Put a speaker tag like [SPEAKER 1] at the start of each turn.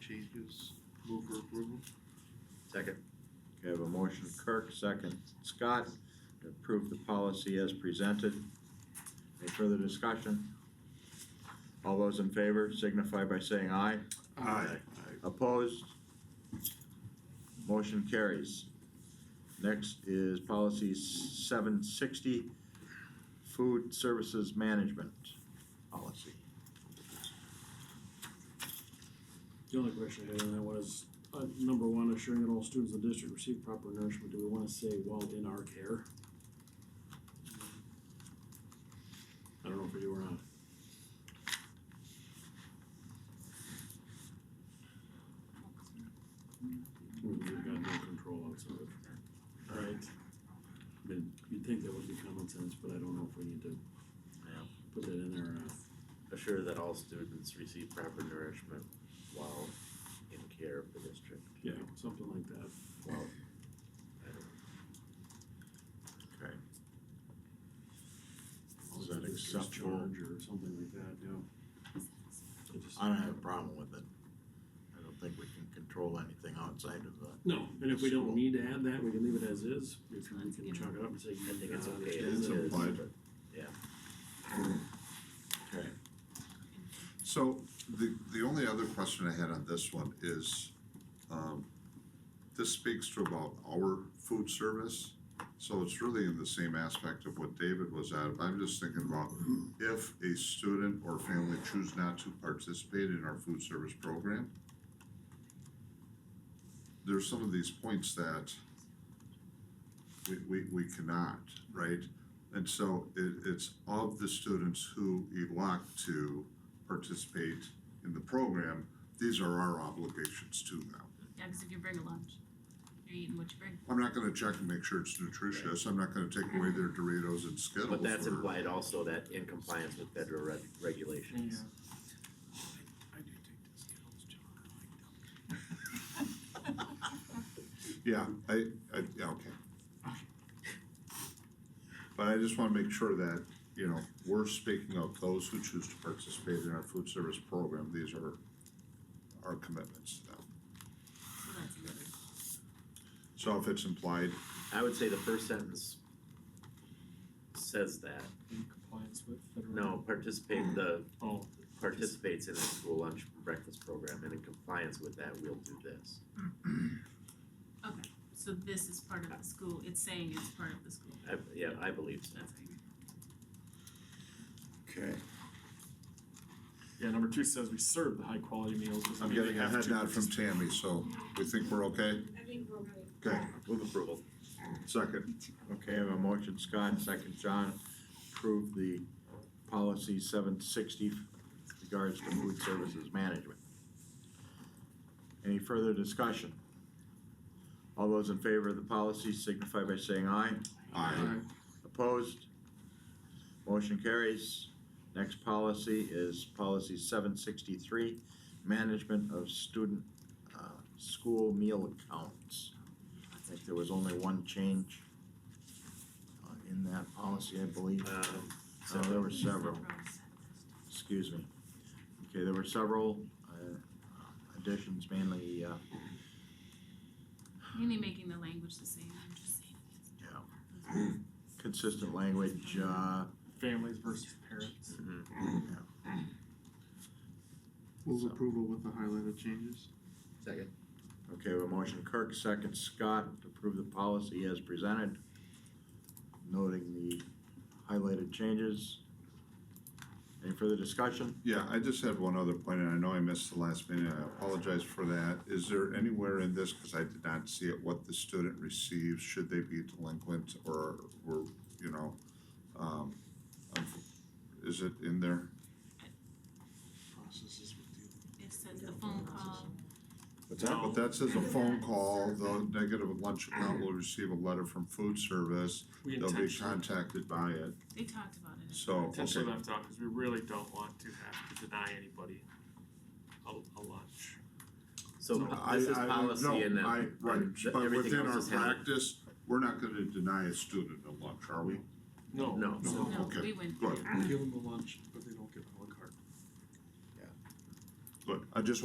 [SPEAKER 1] changes, move for approval.
[SPEAKER 2] Second.
[SPEAKER 3] Okay, I have a motion Kirk, second Scott, to approve the policy as presented. Any further discussion? All those in favor signify by saying aye. Opposed? Motion carries. Next is policy seven sixty, food services management policy.
[SPEAKER 4] The only question I had on that was, uh, number one, assuring that all students in the district receive proper nourishment, do we wanna say while in our care? I don't know if we do or not. We- We've got no control on some of it. Right. I mean, you'd think that would be common sense, but I don't know if we need to
[SPEAKER 2] Yeah.
[SPEAKER 4] put that in there or not.
[SPEAKER 2] Assure that all students receive proper nourishment while in care of the district.
[SPEAKER 4] Yeah, something like that.
[SPEAKER 2] Well, I don't know.
[SPEAKER 3] Okay.
[SPEAKER 4] Is
[SPEAKER 3] Is that acceptable?
[SPEAKER 4] Charge or something like that, yeah. I just-
[SPEAKER 3] I don't have a problem with it. I don't think we can control anything outside of the
[SPEAKER 4] No, and if we
[SPEAKER 3] School.
[SPEAKER 4] don't need to add that, we can leave it as is, if we
[SPEAKER 5] Sounds
[SPEAKER 4] can
[SPEAKER 5] good.
[SPEAKER 4] chalk it up and say.
[SPEAKER 2] I think it's
[SPEAKER 4] uh,
[SPEAKER 2] okay
[SPEAKER 4] understand
[SPEAKER 2] as
[SPEAKER 4] that
[SPEAKER 2] is,
[SPEAKER 4] it's-
[SPEAKER 2] but
[SPEAKER 3] Okay,
[SPEAKER 5] So
[SPEAKER 6] The, the only other question I had on this one is, um, this speaks to about our food service. So it's really in the same aspect of what David was at. I'm just thinking about if a student or family choose not to participate in our food service program. There's some of these points that we, we, we cannot, right? And so it, it's of the students who elect to participate in the program, these are our obligations to them.
[SPEAKER 5] Yeah, because if you bring a lunch, you're eating what you bring.
[SPEAKER 6] I'm not gonna check and make sure it's nutritious, I'm not gonna take away their Doritos and Skittles.
[SPEAKER 2] But that's
[SPEAKER 6] or-
[SPEAKER 2] implied also that in compliance with federal reg- regulations.
[SPEAKER 1] I do take this Skittles jar, I like them.
[SPEAKER 6] Yeah, I, I, yeah, okay. But I just wanna make sure that, you know, we're speaking of those who choose to participate in our food service program, these are our commitments to them.
[SPEAKER 5] So that's another.
[SPEAKER 6] So if it's implied,
[SPEAKER 2] I would say the first sentence says that,
[SPEAKER 1] In compliance with federal.
[SPEAKER 2] no, participate, the
[SPEAKER 1] Oh,
[SPEAKER 2] participates in a school lunch and breakfast program and in compliance with that, we'll do this.
[SPEAKER 5] Okay, so this is part of the school. It's saying it's part of the school.
[SPEAKER 2] I, yeah, I believe so.
[SPEAKER 5] That's how you.
[SPEAKER 3] okay.
[SPEAKER 7] Yeah, number two says we serve the high quality meals. doesn't
[SPEAKER 6] I'm
[SPEAKER 7] mean they
[SPEAKER 6] getting a
[SPEAKER 7] have
[SPEAKER 6] head
[SPEAKER 7] to
[SPEAKER 6] nod from
[SPEAKER 7] participate.
[SPEAKER 6] Tammy, so we think we're okay?
[SPEAKER 8] I think we're really
[SPEAKER 6] Okay,
[SPEAKER 2] Move approval.
[SPEAKER 6] second,
[SPEAKER 3] Okay, I have a motion Scott, second John, approve the policy seven sixty regards to food services management. Any further discussion? All those in favor of the policy signify by saying aye.
[SPEAKER 6] aye.
[SPEAKER 3] Opposed? Motion carries. Next policy is policy seven sixty-three, management of student, uh, school meal accounts. I think there was only one change uh, in that policy, I believe.
[SPEAKER 2] Um,
[SPEAKER 3] So Oh, there were
[SPEAKER 5] Use the
[SPEAKER 3] several,
[SPEAKER 5] pros.
[SPEAKER 3] excuse me. Okay, there were several, uh, additions, mainly, uh,
[SPEAKER 5] Mainly making the language the same. I'm just saying.
[SPEAKER 3] yeah, consistent language, uh,
[SPEAKER 7] Families versus parents.
[SPEAKER 2] mhm.
[SPEAKER 1] move approval with the highlighted changes.
[SPEAKER 2] Second.
[SPEAKER 3] Okay, we have a motion Kirk, second Scott, to approve the policy as presented, noting the highlighted changes. Any further discussion?
[SPEAKER 6] Yeah, I just had one other point, and I know I missed the last minute, I apologize for that. Is there anywhere in this, because I did not see it, what the student receives, should they be delinquent or were, you know, um, um, is it in there?
[SPEAKER 1] Processes with the.
[SPEAKER 5] It says the phone call.
[SPEAKER 6] But that, but that says a phone call, the negative lunch account will receive a letter from food service,
[SPEAKER 7] We
[SPEAKER 6] they'll be
[SPEAKER 7] intentionally,
[SPEAKER 6] contacted by it,
[SPEAKER 5] They talked about it.
[SPEAKER 6] so, okay.
[SPEAKER 7] intentionally left out because we really don't want to have to deny anybody a, a lunch.
[SPEAKER 2] So
[SPEAKER 7] So
[SPEAKER 2] po-
[SPEAKER 6] I,
[SPEAKER 2] this is
[SPEAKER 6] I, no,
[SPEAKER 2] policy and then.
[SPEAKER 6] I, right,
[SPEAKER 2] and th-
[SPEAKER 6] but
[SPEAKER 2] everything
[SPEAKER 6] within
[SPEAKER 2] else
[SPEAKER 6] our
[SPEAKER 2] is handled-
[SPEAKER 6] practice, we're not gonna deny a student a lunch, are we?
[SPEAKER 7] No.
[SPEAKER 2] No.
[SPEAKER 6] No,
[SPEAKER 5] No,
[SPEAKER 6] okay,
[SPEAKER 5] we went.
[SPEAKER 6] good.
[SPEAKER 1] Give them a lunch, but they don't get a la carte.
[SPEAKER 6] But I just